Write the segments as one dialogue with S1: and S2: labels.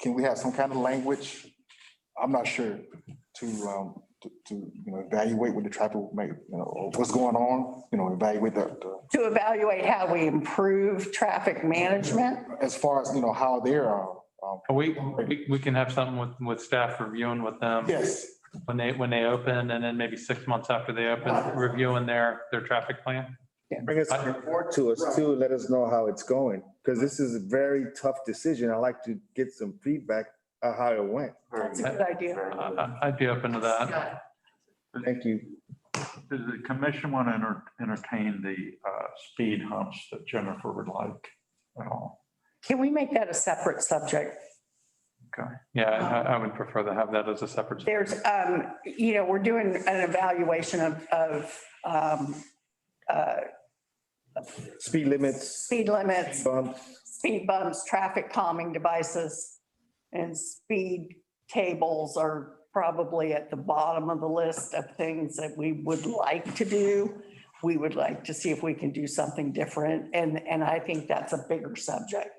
S1: can we have some kind of language? I'm not sure to, um, to, to, you know, evaluate what the traffic may, you know, or what's going on, you know, evaluate the, the
S2: to evaluate how we improve traffic management.
S1: as far as, you know, how they're, uh, um,
S3: We, we, we can have something with, with staff reviewing with them
S1: yes,
S3: when they, when they open and then maybe six months after they open, reviewing their, their traffic plan.
S4: Bring us a report to us too, let us know how it's going, because this is a very tough decision. I'd like to get some feedback on how it went.
S2: That's a good idea.
S3: I- I- I'd be open to that.
S4: Thank you.
S5: Does the commission want to enter- entertain the uh, speed humps that Jennifer would like at all?
S2: Can we make that a separate subject?
S3: Yeah, I, I would prefer to have that as a separate.
S2: There's, um, you know, we're doing an evaluation of, of, um, uh,
S4: Speed limits,
S2: speed limits,
S4: bumps,
S2: speed bumps, traffic calming devices, and speed tables are probably at the bottom of the list of things that we would like to do. We would like to see if we can do something different, and, and I think that's a bigger subject.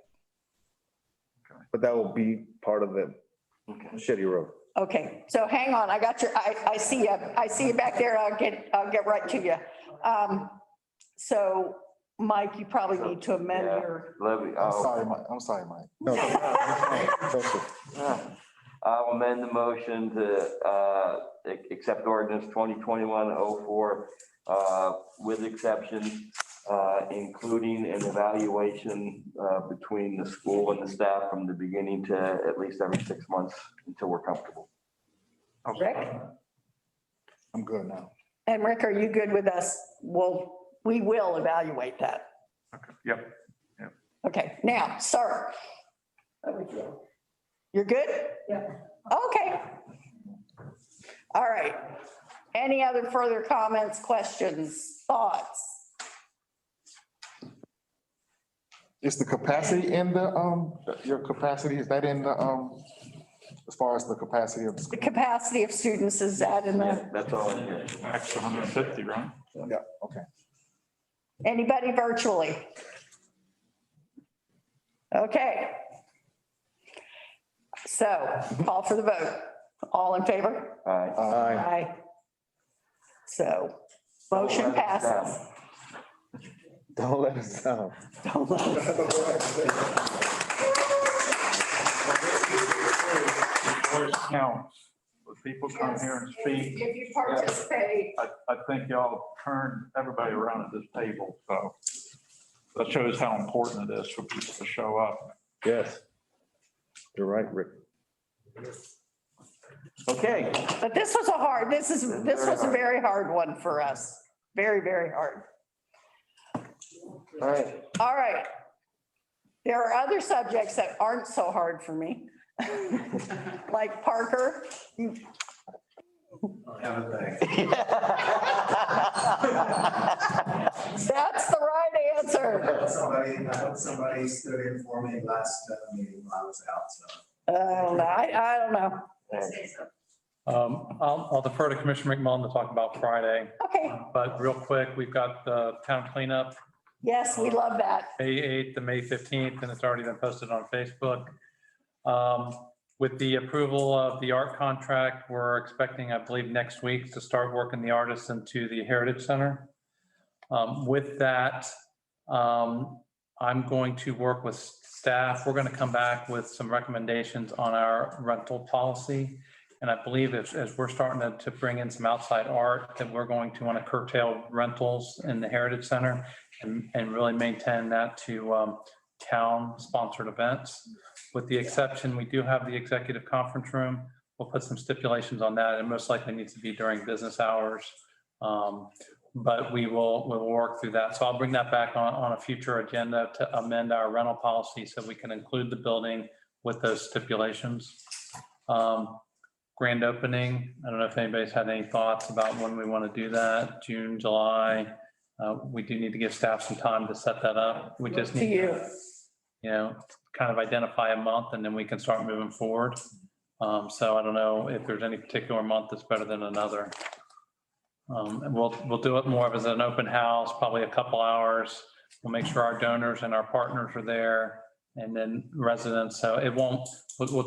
S4: but that will be part of the Shetty Road.
S2: Okay, so hang on, I got your, I, I see you, I see you back there, I'll get, I'll get right to you. Um, so, Mike, you probably need to amend
S6: Yeah.
S2: your,
S6: Let me,
S1: I'm
S4: Oh.
S6: I'll,
S1: sorry, Mike, I'm sorry, Mike.
S4: No, Joseph.
S6: I'll amend the motion to, uh, ac- accept ordinance twenty twenty-one oh four, uh, with exception, uh, including an evaluation, uh, between the school and the staff from the beginning to at least every six months until we're comfortable.
S2: Rick?
S1: I'm good now.
S2: And Rick, are you good with us? Well, we will evaluate that.
S5: Yep.
S2: Okay, now, sir. You're good? Yeah. Okay. All right. Any other further comments, questions, thoughts?
S1: Is the capacity in the, um, your capacity, is that in the, um, as far as the capacity of the
S2: The
S1: school?
S2: capacity of students is that in the?
S6: Yeah, That's all I hear.
S5: Max 150, right?
S1: Yeah, okay.
S2: Anybody virtually? Okay. So call for the vote. All in favor?
S6: All
S1: Uh,
S6: right.
S4: Aye.
S2: Aye. So motion passes.
S4: Don't let us down.
S5: Voice counts. When people come here and speak,
S2: If you participate.
S5: I, I think y'all turned everybody around at this table, so that shows how important it is for people to show up.
S4: Yes. You're right, Rick.
S6: Okay.
S2: But this was a hard, this is, this was a very hard one for us. Very, very hard.
S6: All right.
S2: All right. There are other subjects that aren't so hard for me. Like Parker. That's the right answer.
S7: hope Somebody, I hope somebody stood in for me last uh, meeting when I was out, so.
S2: I don't know. Uh, I, I don't know.
S3: Um, I'll, I'll defer to Commissioner McMullen to talk about Friday,
S2: Okay.
S3: but real quick, we've got the town cleanup,
S2: Yes, we love that.
S3: May 8th to May 15th, and it's already been posted on Facebook. Um, With the approval of the art contract, we're expecting, I believe, next week to start working the artists into the Heritage Center. Um, With that, um, I'm going to work with staff. We're going to come back with some recommendations on our rental policy. And I believe as, as we're starting to, to bring in some outside art, that we're going to want to curtail rentals in the Heritage Center and, and really maintain that to um, town-sponsored events. With the exception, we do have the executive conference room. We'll put some stipulations on that. It most likely needs to be during business hours. Um, But we will, we'll work through that. So I'll bring that back on, on a future agenda to amend our rental policy so we can include the building with those stipulations. Um, Grand opening, I don't know if anybody's had any thoughts about when we want to do that, June, July. Uh, We do need to give staff some time to set that up. We just
S2: To
S3: need
S2: you.
S3: to you know, kind of identify a month and then we can start moving forward. Um, so I don't know if there's any particular month that's better than another. Um, and we'll, we'll do it more of as an open house, probably a couple hours. We'll make sure our donors and our partners are there and then residents. So it won't, we'll, we'll